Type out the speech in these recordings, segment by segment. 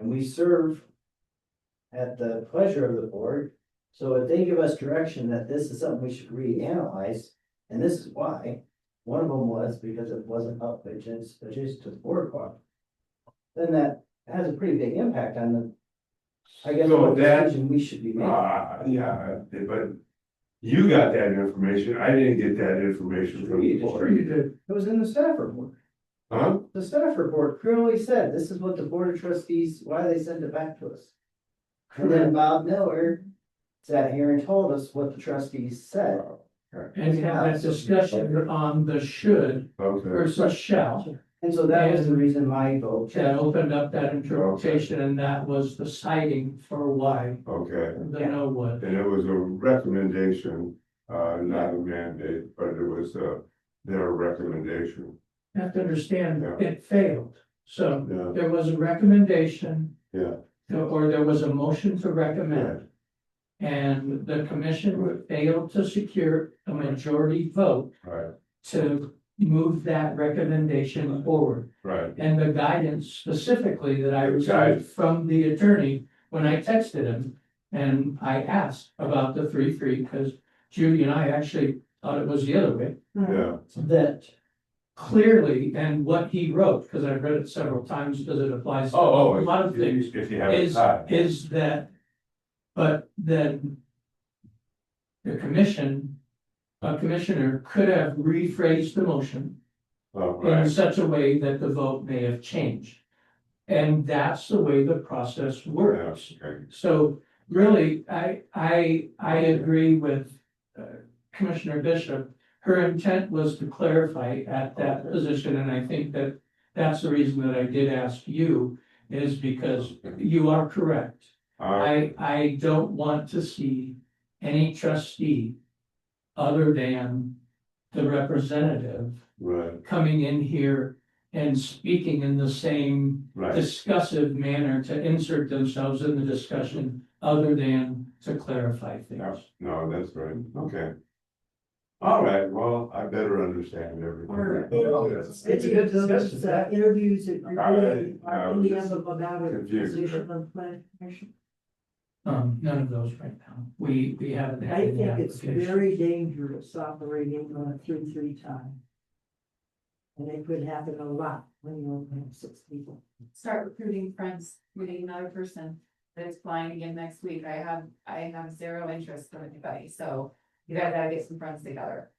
we serve at the pleasure of the board. So if they give us direction that this is something we should reanalyze, and this is why, one of them was because it wasn't up adjacent, adjacent to the boardwalk. Then that has a pretty big impact on the, I guess, So what that- decision we should be making. Ah, yeah, but you got that information, I didn't get that information from the board. It was in the staff report. Huh? The staff report clearly said, this is what the board of trustees, why they sent it back to us. And then Bob Miller sat here and told us what the trustees said. and have that discussion on the should Okay, versus shall. And so that was the reason my vote. That opened up that interpretation and that was the citing for why okay, the no was. and it was a recommendation, uh, not a mandate, but it was, uh, their recommendation, You Have to understand, Yeah. it failed. So yeah, there was a recommendation yeah. or there was a motion to recommend. yeah. And the commission failed to secure a majority vote Right, to move that recommendation forward. right, And the guidance specifically that I received from the attorney when I texted him. And I asked about the three three, because Judy and I actually thought it was the other way. yeah, That clearly, and what he wrote, because I've read it several times, because it applies. to oh, A lot of oh, things if if you have a is, tie, is that, but then the commission, a commissioner could have rephrased the motion oh, in right, such a way that the vote may have changed. And that's the way the process yeah, works. okay. So really, I, I, I agree with uh, Commissioner Bishop. Her intent was to clarify at that position, and I think that that's the reason that I did ask you is because you are correct. Uh, I, I don't want to see any trustee other than the representative right, coming in here and speaking in the same right, discussive manner to insert themselves in the discussion other than to clarify yeah, things. no, that's right, okay. All right, well, I better understand everything. It's it's a good discussion, uh, interviews that I- really I are was really just about a confused. position of planning commission. Um, none of those right now. We, we haven't had I any think it's application. very dangerous operating on a three-three tie. And it could happen a lot when you only have six people. start recruiting friends, meeting another person that's flying again next week. I have, I have zero interest from anybody, so you guys gotta get some friends together.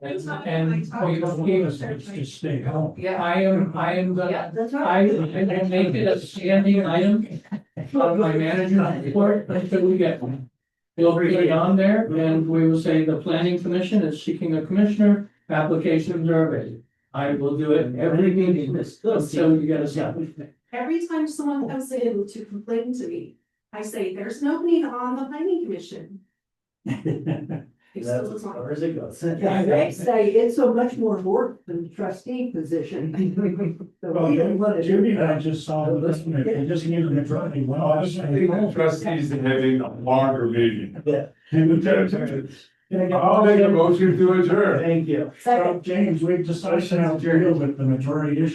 And, and we don't need us to stay home. Yeah, I am, I am gonna yeah, That's I, right. I make it a standing item on my manager's report until we get one. We'll put it on there and we will say the planning commission is seeking a commissioner, applications are available. I will do it every meeting until you get a second. Every time someone comes in to complain to me, I say, there's nobody on the planning commission. It's That still was as long- hours ago. They say it's so much more work than trustee position. So we don't want to do Judy and I that. just saw the listener, they just gave them a drawing, one I off. think the trustees are having a longer meeting. I'll make a James, motion to adjourn. Thank you. we've decided to deal with the majority issue.